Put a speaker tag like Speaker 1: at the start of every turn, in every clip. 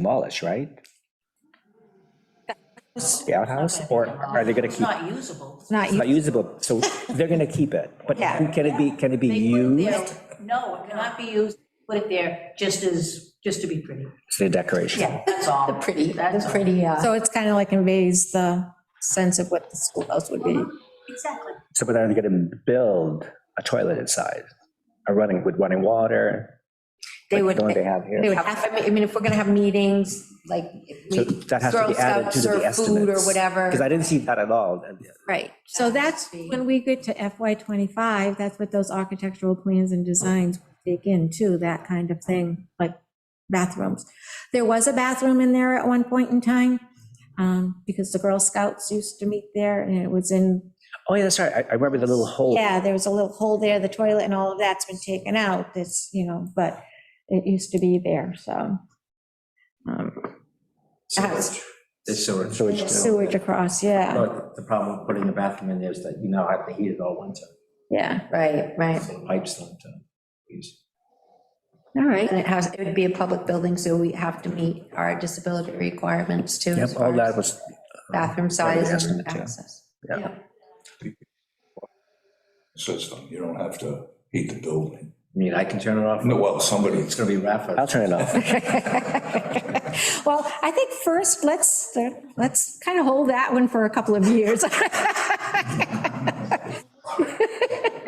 Speaker 1: demolish, right? The outhouse, or are they gonna
Speaker 2: It's
Speaker 1: keep,
Speaker 2: not usable.
Speaker 3: Not
Speaker 1: it's
Speaker 3: you.
Speaker 1: not usable, so they're gonna keep it, but
Speaker 3: Yeah.
Speaker 1: who- can it be, can it be
Speaker 2: They put it there-
Speaker 1: used
Speaker 2: No, it cannot be used, put it there just as, just to be pretty.
Speaker 1: as a decoration?
Speaker 2: Yeah, that's all.
Speaker 4: The pretty,
Speaker 2: That's
Speaker 4: the
Speaker 2: all.
Speaker 4: pretty, uh,
Speaker 3: So it's kind of like invades the sense of what the schoolhouse would be.
Speaker 2: Exactly.
Speaker 1: So but are they gonna build a toilet inside, a running, with running water?
Speaker 4: They
Speaker 1: like
Speaker 4: would-
Speaker 1: The one they have here?
Speaker 3: they would
Speaker 4: have- I mean- I mean, if we're going to have meetings, like. if
Speaker 1: So
Speaker 4: we-
Speaker 1: that has to
Speaker 4: Girl
Speaker 1: be added
Speaker 4: Scouts
Speaker 1: to the
Speaker 4: serve Food or
Speaker 1: estimates.
Speaker 4: whatever.
Speaker 1: Because I didn't see that at all.
Speaker 4: Right.
Speaker 3: So that's when we get to FY '25, that's what those architectural plans and designs take in too, that kind of thing, like bathrooms. There was a bathroom in there at one point in time, um, because the Girl Scouts used to meet there and it was in,
Speaker 1: Oh, yeah, that's right, I- I remember the little hole.
Speaker 3: yeah, there was a little hole there, the toilet and all of that's been taken out, this, you know, but it used to be there, so. um,
Speaker 5: Sewage. There's sewage.
Speaker 1: Sewage too.
Speaker 3: Sewage across, yeah,
Speaker 5: But the problem with putting a bathroom in there is that you now have to heat it all winter.
Speaker 3: yeah,
Speaker 4: Right, right.
Speaker 5: So the pipes don't uh, use.
Speaker 4: All right. And it has, it would be a public building, so we have to meet our disability requirements too. as
Speaker 1: Yep, all
Speaker 4: far
Speaker 1: that
Speaker 4: as
Speaker 1: was.
Speaker 4: Bathroom
Speaker 1: part of the
Speaker 4: size and
Speaker 1: estimate, yeah.
Speaker 4: access.
Speaker 1: Yeah.
Speaker 6: system. You don't have to heat the building.
Speaker 5: I mean, I can turn it off.
Speaker 6: No, well, somebody,
Speaker 5: It's gonna be Rafa.
Speaker 1: I'll turn it off.
Speaker 3: Well, I think first, let's, let's kind of hold that one for a couple of years.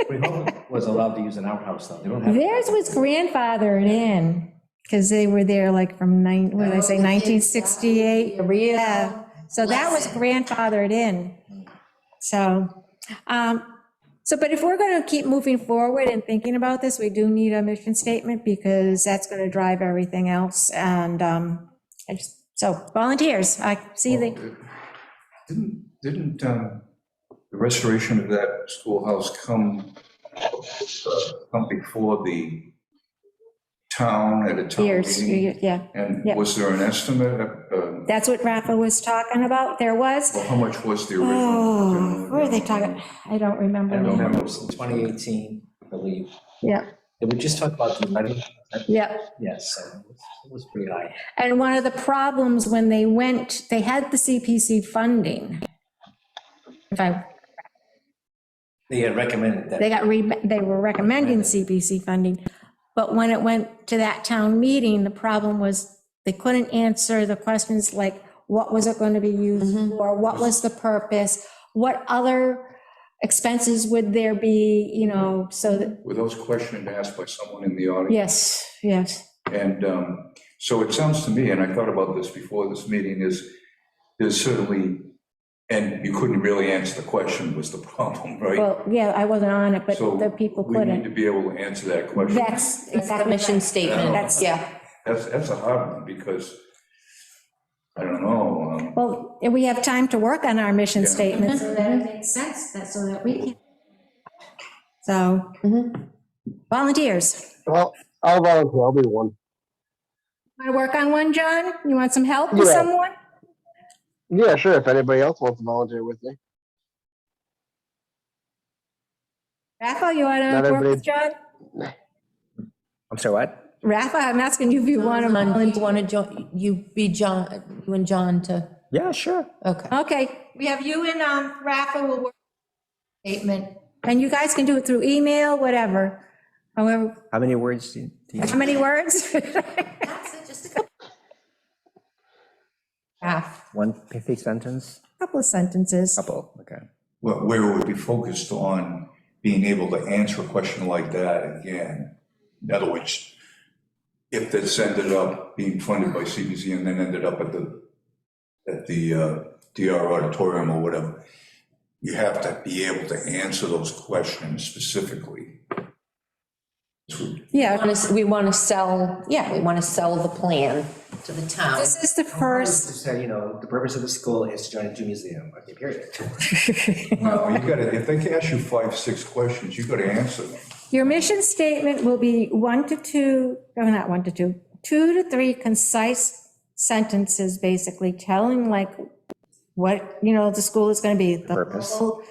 Speaker 5: We hope it Was allowed to use an outhouse though. They don't have.
Speaker 3: Theirs was grandfathered in, because they were there like from nine, what did I say, 1968?
Speaker 4: A real
Speaker 3: Yeah, uh, so that was
Speaker 4: lesson.
Speaker 3: grandfathered in. So, um, so, but if we're going to keep moving forward and thinking about this, we do need a mission statement, because that's going to drive everything else, and, um, I just- so volunteers, I see they.
Speaker 6: Didn't, didn't um, the restoration of that schoolhouse come, uh, come before the town at a town
Speaker 3: Years,
Speaker 6: meeting?
Speaker 3: yeah.
Speaker 6: And
Speaker 3: yeah.
Speaker 6: was there an estimate? uh,
Speaker 3: That's what Rafa was talking about. There was,
Speaker 6: Well, how much was the
Speaker 3: oh,
Speaker 6: original?
Speaker 3: where are they talking? I don't
Speaker 5: I don't
Speaker 3: remember.
Speaker 5: remember, it was in 2018, I believe.
Speaker 3: Yeah.
Speaker 5: Did we just talk about the money?
Speaker 3: Yeah.
Speaker 5: Yes, so it was- it was pretty high.
Speaker 3: And one of the problems when they went, they had the CPC funding. If I,
Speaker 5: They had recommended that.
Speaker 3: they got, re they were recommending CPC funding. But when it went to that town meeting, the problem was they couldn't answer the questions like, what was it going to be
Speaker 4: Mm-hmm.
Speaker 3: used for? What was the purpose? What other expenses would there be, you know, so that,
Speaker 6: Were those questions asked by someone in the audience?
Speaker 3: yes, yes.
Speaker 6: And um, so it sounds to me, and I thought about this before this meeting, is there's certainly, and you couldn't really answer the question was the problem, right?
Speaker 3: Well, yeah, I wasn't on it, but
Speaker 6: So
Speaker 3: the people
Speaker 6: We need to
Speaker 3: couldn't.
Speaker 6: be able to answer that question.
Speaker 3: That's
Speaker 4: That's the
Speaker 3: exactly.
Speaker 4: mission
Speaker 3: right.
Speaker 4: statement.
Speaker 3: That's-
Speaker 4: Yeah.
Speaker 6: That's, that's a hard one because, I don't know, um,
Speaker 3: Well, we have time to work on our mission
Speaker 6: Yeah.
Speaker 3: statements, so that it
Speaker 4: Mm-hmm.
Speaker 3: makes sense, that, so that we can. So,
Speaker 4: Mm-hmm.
Speaker 3: volunteers.
Speaker 7: Well, I'll volunteer. I'll be one.
Speaker 3: Want to work on one, John? You want some help with
Speaker 7: Yeah.
Speaker 3: someone?
Speaker 7: Yeah, sure. If anybody else wants to volunteer with me,
Speaker 3: Rafa, you want
Speaker 7: Not
Speaker 3: to work
Speaker 7: everybody-
Speaker 3: with John?
Speaker 1: I'm sorry, what?
Speaker 3: Rafa, I'm asking you if you want to volunteer.
Speaker 4: Want to join, you be John, you and John to,
Speaker 1: Yeah, sure.
Speaker 4: okay.
Speaker 3: Okay, we have you and um, Rafa will work. Statement, and you guys can do it through email, whatever, however,
Speaker 1: How many words do you? do you-
Speaker 3: how many words?
Speaker 4: Half.
Speaker 1: One pithy sentence?
Speaker 3: Couple of sentences.
Speaker 1: Couple, okay.
Speaker 6: where where it would be focused on being able to answer a question like that again. In other words, if this ended up being funded by CPC and then ended up at the, at the uh, DR auditorium or whatever, you have to be able to answer those questions specifically. This would-
Speaker 3: Yeah,
Speaker 4: We want to sell, yeah, we want to sell the plan to the town.
Speaker 3: this is the first,
Speaker 5: Just say, you know, the purpose of the school is to join a gym museum, okay, period.
Speaker 6: No, you gotta, if they ask you five, six questions, you gotta answer them.
Speaker 3: your mission statement will be one to two, no, not one to two, two to three concise sentences, basically telling like what, you know, the school is going to be. the
Speaker 1: Purpose.
Speaker 3: whole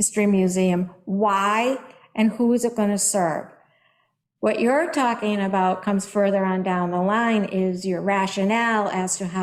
Speaker 3: History museum, why and who is it going to serve? What you're talking about comes further on down the line is your rationale as to how